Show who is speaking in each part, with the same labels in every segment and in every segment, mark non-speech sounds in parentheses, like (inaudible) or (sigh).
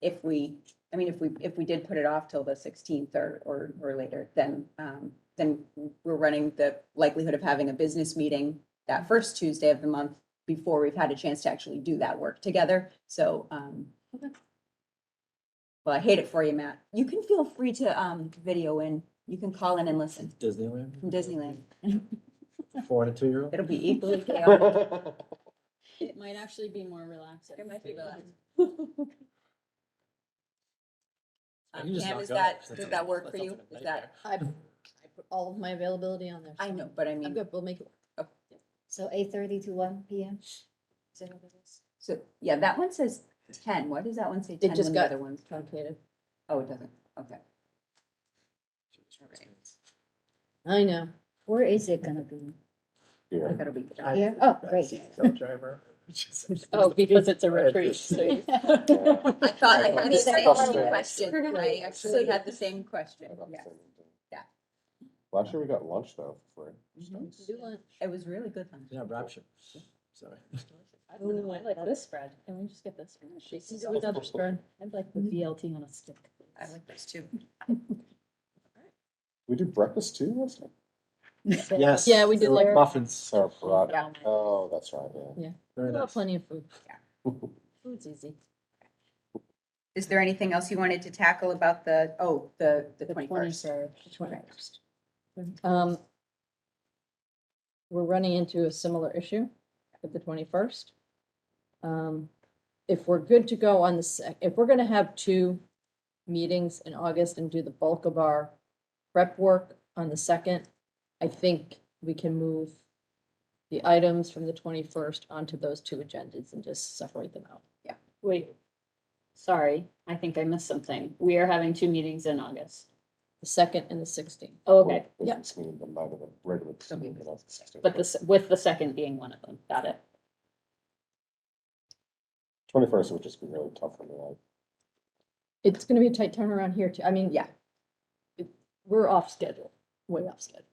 Speaker 1: if we, I mean, if we, if we did put it off till the sixteenth or, or, or later, then, um, then we're running the likelihood of having a business meeting that first Tuesday of the month before we've had a chance to actually do that work together. So, um,
Speaker 2: Okay.
Speaker 1: well, I hate it for you, Matt. You can feel free to, um, video in. You can call in and listen
Speaker 3: Disneyland?
Speaker 1: from Disneyland.
Speaker 3: Four and a two-year-old?
Speaker 1: It'll be equally chaotic.
Speaker 3: All
Speaker 2: It might actually be more relaxing.
Speaker 1: It might be relaxing.
Speaker 3: I
Speaker 1: Um,
Speaker 3: can just
Speaker 1: Pam,
Speaker 3: knock
Speaker 1: is
Speaker 3: out.
Speaker 1: that,
Speaker 3: That's
Speaker 1: does
Speaker 3: a-
Speaker 1: that work
Speaker 3: that's
Speaker 1: for
Speaker 3: not
Speaker 1: you?
Speaker 3: a
Speaker 1: Is
Speaker 3: nightmare.
Speaker 1: that,
Speaker 2: I, I put all of my availability on there.
Speaker 1: I
Speaker 2: so
Speaker 1: know, but I mean.
Speaker 2: I'm good, we'll make it. work.
Speaker 4: So eight thirty to one P M.
Speaker 1: Is that what it is? So, yeah, that one says ten. Why does that one say ten
Speaker 2: just
Speaker 1: when the
Speaker 2: got-
Speaker 1: other one's?
Speaker 2: Truncated.
Speaker 1: Oh, it doesn't. Okay.
Speaker 2: I know.
Speaker 4: Where is it gonna be?
Speaker 1: I thought it'd (laughs) be-
Speaker 3: I-
Speaker 4: Here? Oh, great.
Speaker 1: (laughs)
Speaker 3: Self driver.
Speaker 2: Oh, because it's a
Speaker 3: Right,
Speaker 2: retreat.
Speaker 3: just-
Speaker 2: so (laughs) you-
Speaker 1: I thought I
Speaker 5: I
Speaker 1: had
Speaker 5: thought
Speaker 1: the
Speaker 5: it's
Speaker 1: same
Speaker 5: frustrating.
Speaker 1: question. I actually had the same question. Yeah. Yeah.
Speaker 5: Last year we got lunch though, for
Speaker 6: Mm-hmm.
Speaker 1: Mhm.
Speaker 2: Do lunch.
Speaker 1: It was really good. lunch.
Speaker 3: (laughs) Yeah, rapture. Sorry.
Speaker 2: I don't know, I like this spread. Can we just get this? spread? She sees it with another spread. I'd like the VLT on a stick.
Speaker 1: I like those too.
Speaker 5: We did breakfast too last night?
Speaker 3: Yes.
Speaker 2: Yeah, we
Speaker 3: they
Speaker 2: did
Speaker 3: were
Speaker 2: like.
Speaker 3: Muffins.
Speaker 5: Oh, forgot.
Speaker 2: Yeah.
Speaker 5: Oh, that's right, yeah.
Speaker 3: Very
Speaker 2: Well,
Speaker 3: nice.
Speaker 2: Plenty of food.
Speaker 5: Well,
Speaker 2: Food's easy.
Speaker 1: Is there anything else you wanted to tackle about the, oh, the, the
Speaker 2: The
Speaker 1: twenty-first?
Speaker 2: 23rd, the 21st. Um, We're running into a similar issue at the 21st. Um, If we're good to go on the, sec- if we're going to have two meetings in August and do the bulk of our prep work on the 2nd, I think we can move the items from the 21st onto those two agendas and just separate them out.
Speaker 6: Wait, sorry, I think I missed something. We are having two meetings in August.
Speaker 2: The 2nd and the 16th.
Speaker 6: Oh, okay,
Speaker 5: if
Speaker 2: yeah.
Speaker 5: it's me, then neither the regular team, you know, it's-
Speaker 6: but this, with the second being one of them, got it.
Speaker 5: Twenty-first would just be really tough for me, like,
Speaker 2: It's gonna be a tight turnaround here too. I mean, yeah. it- We're off schedule, way off schedule.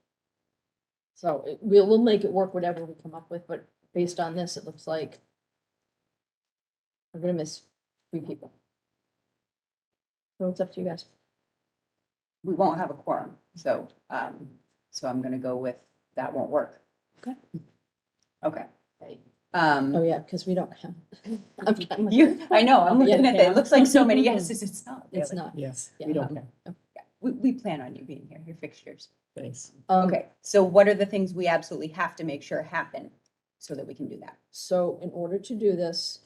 Speaker 2: So it- we'll, we'll make it work, whatever we come up with, but based on this, it looks like we're gonna miss three people. So it's up to you guys.
Speaker 1: We won't have a quorum, so, um, so I'm gonna go with, that won't work.
Speaker 2: Okay.
Speaker 1: Okay.
Speaker 6: Right.
Speaker 2: Oh,
Speaker 1: Um,
Speaker 2: yeah, because we don't have. (laughs) I'm- I'm like,
Speaker 1: you, I know, I'm
Speaker 2: Yeah,
Speaker 1: looking at that.
Speaker 2: yeah.
Speaker 1: It looks like so many
Speaker 2: (laughs)
Speaker 1: yeses. It's not.
Speaker 2: It's
Speaker 1: really.
Speaker 2: not.
Speaker 3: Yes.
Speaker 2: Yeah,
Speaker 3: We don't
Speaker 2: okay.
Speaker 3: know.
Speaker 1: Yeah. We, we plan on you being here. Your fixtures.
Speaker 3: Thanks.
Speaker 2: Um,
Speaker 1: Okay, so what are the things we absolutely have to make sure happen so that we can do that?
Speaker 2: So in order to do this,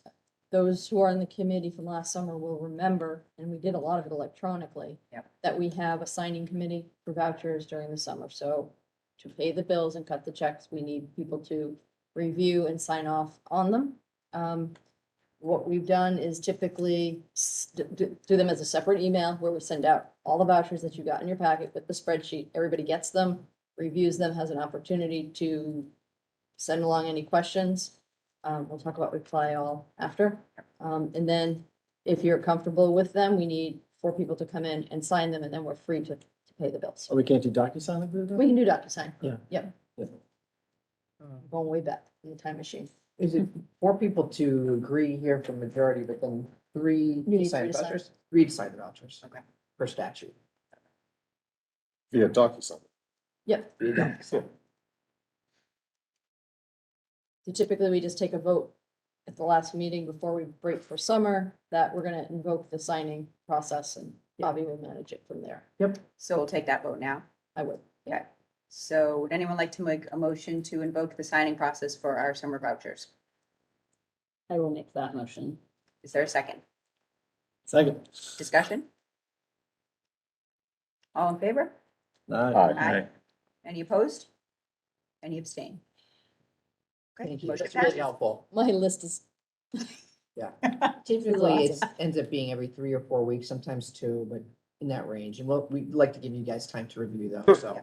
Speaker 2: those who are on the committee from last summer will remember, and we did a lot of it electronically.
Speaker 1: Yep.
Speaker 2: That we have a signing committee for vouchers during the summer, so to pay the bills and cut the checks, we need people to review and sign off on them. Um, what we've done is typically s- d- d- do them as a separate email where we send out all the vouchers that you got in your packet with the spreadsheet. Everybody gets them, reviews them, has an opportunity to send along any questions. Um, we'll talk about reply all after. Um, and then if you're comfortable with them, we need four people to come in and sign them and then we're free to, to pay the bills.
Speaker 3: Oh, we can't do DocuSign like we did?
Speaker 2: We can do DocuSign.
Speaker 3: Yeah.
Speaker 2: Yep, going way back in the time machine.
Speaker 7: Is it four people to agree here for majority, but then three
Speaker 2: need
Speaker 7: to sign
Speaker 2: three
Speaker 7: the
Speaker 2: to sign.
Speaker 7: vouchers? Three to sign the vouchers.
Speaker 1: Okay.
Speaker 7: Per statute.
Speaker 5: via DocuSign.
Speaker 2: Yep.
Speaker 7: Three DocuSign.
Speaker 2: So typically, we just take a vote at the last meeting before we break for summer that we're gonna invoke the signing process and Bobby will manage it from there.
Speaker 1: So we'll take that vote now.
Speaker 2: I would.
Speaker 1: So would anyone like to make a motion to invoke the signing process for our summer vouchers?
Speaker 6: I will make that motion.
Speaker 1: Is there a second?
Speaker 3: Second.
Speaker 1: Discussion? All in favor?
Speaker 3: Aye.
Speaker 5: Aye.
Speaker 1: Any opposed? Any abstain? Okay,
Speaker 7: Thank you.
Speaker 1: motion
Speaker 7: That's really
Speaker 1: passes.
Speaker 7: helpful.
Speaker 2: My list is,
Speaker 7: Typically, it ends up being every three or four weeks, sometimes two, but in that range. And we'll, we'd like to give you guys time to review them, so.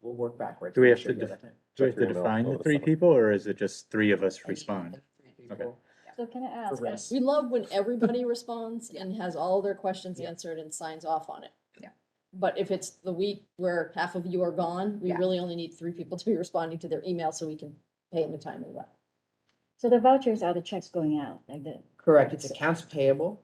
Speaker 7: We'll work backwards.
Speaker 8: Do we
Speaker 7: make
Speaker 8: have
Speaker 7: sure
Speaker 8: to
Speaker 7: you
Speaker 8: def-
Speaker 7: have that.
Speaker 8: Do we have to
Speaker 5: Check your email
Speaker 8: define
Speaker 5: over
Speaker 8: the
Speaker 5: the
Speaker 8: three
Speaker 5: summer.
Speaker 8: people, or is it just three of us respond? Okay.
Speaker 4: So can I ask?
Speaker 7: Correct.
Speaker 2: we love when
Speaker 1: (laughs)
Speaker 2: everybody responds and has all their questions answered and signs off on it.
Speaker 1: Yeah.
Speaker 2: But if it's the week where half of you are gone, we
Speaker 1: Yeah.
Speaker 2: really only need three people to be responding to their email so we can pay in a timely way.
Speaker 4: So the vouchers are the checks going out, like the,
Speaker 7: Correct. It's accounts payable,